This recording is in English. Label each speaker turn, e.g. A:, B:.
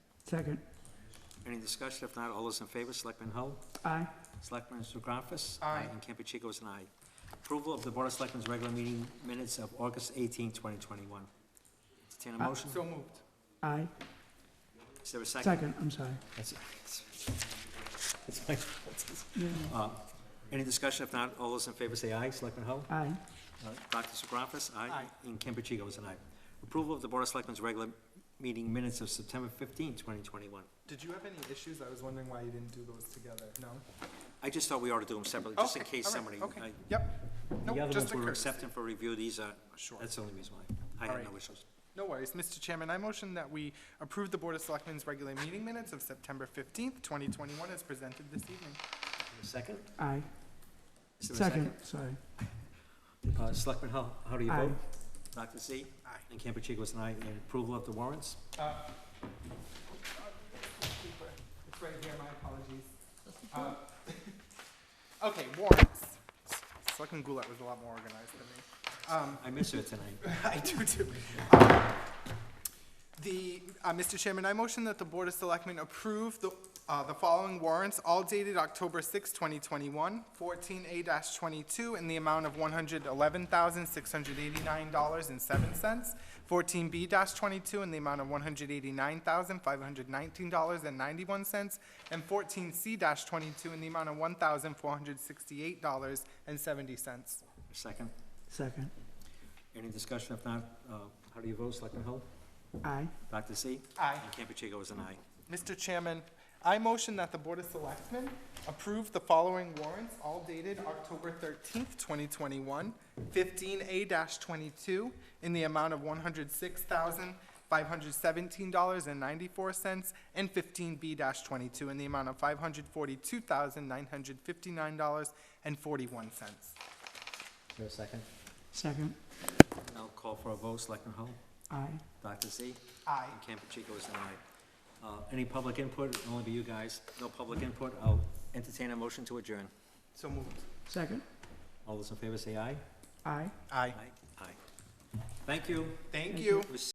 A: Second.
B: Any discussion? If not, all those in favor, Selectman Hull?
A: Aye.
B: Selectman Zografas? Aye. And Campuchico is an aye. Approval of the Board of Selectmen's regular meeting minutes of August 18, 2021. Entertain a motion?
C: Uh, So moved.
A: Aye.
B: Is there a second?
A: Second, I'm sorry.
B: That's it. It's my fault.
A: Yeah.
B: Uh, Any discussion? If not, all those in favor say aye. Selectman Hull?
A: Aye.
B: Uh, Dr. Segravas?
C: Aye.
B: And Campuchico is an aye. Approval of the Board of Selectmen's regular meeting minutes of September 15, 2021.
C: Did you have any issues? I was wondering why you didn't do those together. No?
B: I just thought we ought to do them separately, just in
C: Okay,
B: case
C: all right,
B: somebody,
C: Okay,
B: I-
C: yep.
B: the
C: Nope,
B: other
C: just
B: ones
C: a
B: we were
C: courtesy.
B: accepting for review, these are,
C: Sure.
B: that's the only reason why. I
C: All
B: had no
C: right.
B: issues.
C: No worries. Mr. Chairman, I motion that we approve the Board of Selectmen's regular meeting minutes of September 15th, 2021 as presented this evening.
B: Second?
A: Aye.
B: Is there a
A: Second, sorry.
B: Uh, Selectman Hull, how do you
A: Aye.
B: vote? Dr. Z?
C: Aye.
B: And Campuchico is an aye. And approval of the warrants?
C: Uh, It's right here, my apologies. Uh, Okay, warrants. Selectman Goulart was a lot more organized than me. Um,
B: I miss her tonight.
C: I do too. Um, The, uh, Mr. Chairman, I motion that the Board of Selectmen approve the, uh, the following warrants, all dated October 6, 2021, 14A-22 in the amount of $111,689.07, 14B-22 in the amount of $189,519.91, and 14C-22 in the amount of $1,468.70.
B: Second?
A: Second.
B: Any discussion? If not, uh, how do you vote, Selectman Hull?
A: Aye.
B: Dr. Z?
C: Aye.
B: And Campuchico is an aye.
C: Mr. Chairman, I motion that the Board of Selectmen approve the following warrants, all dated October thirteenth, twenty twenty-one, fifteen A twenty-two, in the amount of one hundred six thousand, five hundred seventeen dollars and ninety-four cents, and fifteen B twenty-two, in the amount of five hundred forty-two thousand, nine hundred fifty-nine dollars and forty-one cents.
B: Is there a second?
A: Second.
B: I'll call for a vote. Selectman Hull?
A: Aye.
B: Dr. Z?
C: Aye.
B: And Campuchico is an aye. Uh, Any public input? It'll only be you guys. No public input. I'll entertain a motion to adjourn.
C: So moved.
A: Second.
B: All those in favor say aye.
A: Aye.
C: Aye.
B: Aye. Aye. Thank you.
C: Thank you.
B: It was